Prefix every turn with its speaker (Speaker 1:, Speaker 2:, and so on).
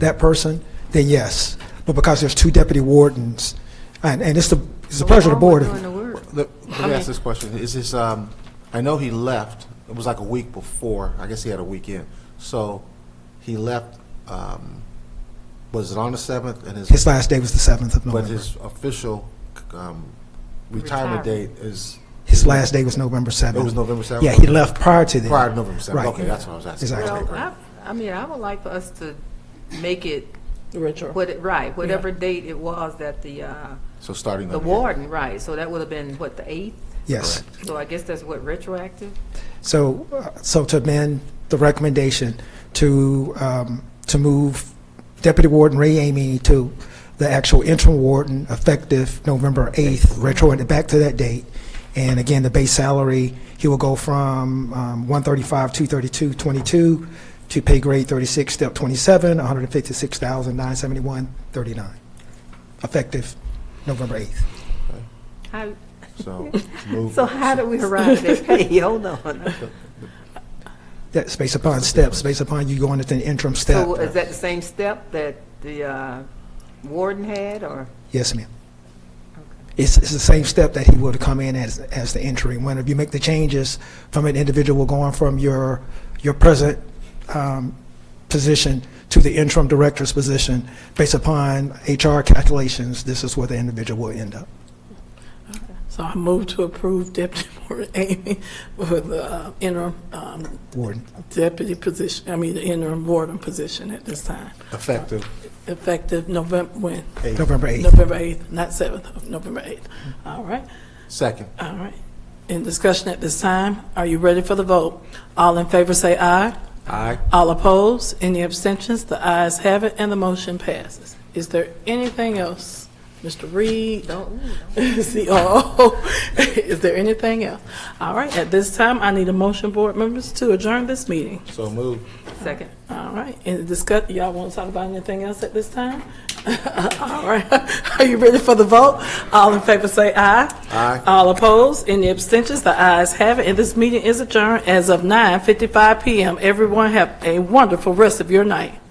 Speaker 1: that person, then yes. But because there's two deputy wardens, and, and it's the, it's the pleasure of the board.
Speaker 2: Doing the work.
Speaker 3: Let let me ask this question. Is this, um, I know he left, it was like a week before, I guess he had a weekend. So he left, um, was it on the 7th? And
Speaker 1: His last day was the 7th of
Speaker 3: But
Speaker 1: November.
Speaker 3: his official um, retirement date
Speaker 2: Retirement.
Speaker 3: is,
Speaker 1: His last day was November 7th.
Speaker 3: it was November 7th?
Speaker 1: Yeah, he left prior to that.
Speaker 3: Prior to November 7th?
Speaker 1: Right.
Speaker 3: Okay, that's what I was asking.
Speaker 1: Exactly.
Speaker 2: Well,
Speaker 3: Okay, great.
Speaker 2: I, I mean, I would like for us to make it,
Speaker 4: Retro.
Speaker 2: what, it- right, whatever date it was that the, uh,
Speaker 3: So starting
Speaker 2: the
Speaker 3: on the...
Speaker 2: warden, right, so that would have been, what, the 8th?
Speaker 1: Yes.
Speaker 2: So I guess that's what, retroactive?
Speaker 1: So, uh, so to amend the recommendation to, um, to move Deputy Warden Ray Amy to the actual interim warden effective November 8th, retroactive back to that date. And again, the base salary, he will go from um, 135, 232, 22 to pay grade 36, step 27, 156,971, 39, effective November 8th.
Speaker 2: How,
Speaker 3: So move-
Speaker 2: so how do we arrive at that pay? Hold on.
Speaker 1: That's based upon steps, based upon you going into the interim step.
Speaker 2: So is that the same step that the uh, warden had, or?
Speaker 1: Yes, ma'am. It's, it's the same step that he would come in as, as the entry. When if you make the changes from an individual going from your, your present um, position to the interim director's position, based upon HR calculations, this is where the individual will end up.
Speaker 4: So I move to approve Deputy Warden Amy for the uh, interim um,
Speaker 1: Warden.
Speaker 4: deputy position, I mean, the interim warden position at this time,
Speaker 3: Effective
Speaker 4: effective November, when?
Speaker 3: 8th.
Speaker 1: November 8th.
Speaker 4: November 8th, not 7th, of November 8th. All right,
Speaker 3: Second.
Speaker 4: all right. In discussion at this time, are you ready for the vote? All in favor say aye.
Speaker 3: Aye.
Speaker 4: All opposed? Any abstentions? The ayes have it, and the motion passes. Is there anything else? Mr. Reed?
Speaker 2: Don't,
Speaker 4: COO. Is there anything else? All right, at this time, I need a motion, board members, to adjourn this meeting.
Speaker 3: So move.
Speaker 2: second.
Speaker 4: All right, and discuss, y'all want to talk about anything else at this time? All right, are you ready for the vote? All in favor say aye.
Speaker 3: Aye.
Speaker 4: All opposed, any abstentions? The ayes have it, and this meeting is adjourned as of 9:55 PM. Everyone have a wonderful rest of your night.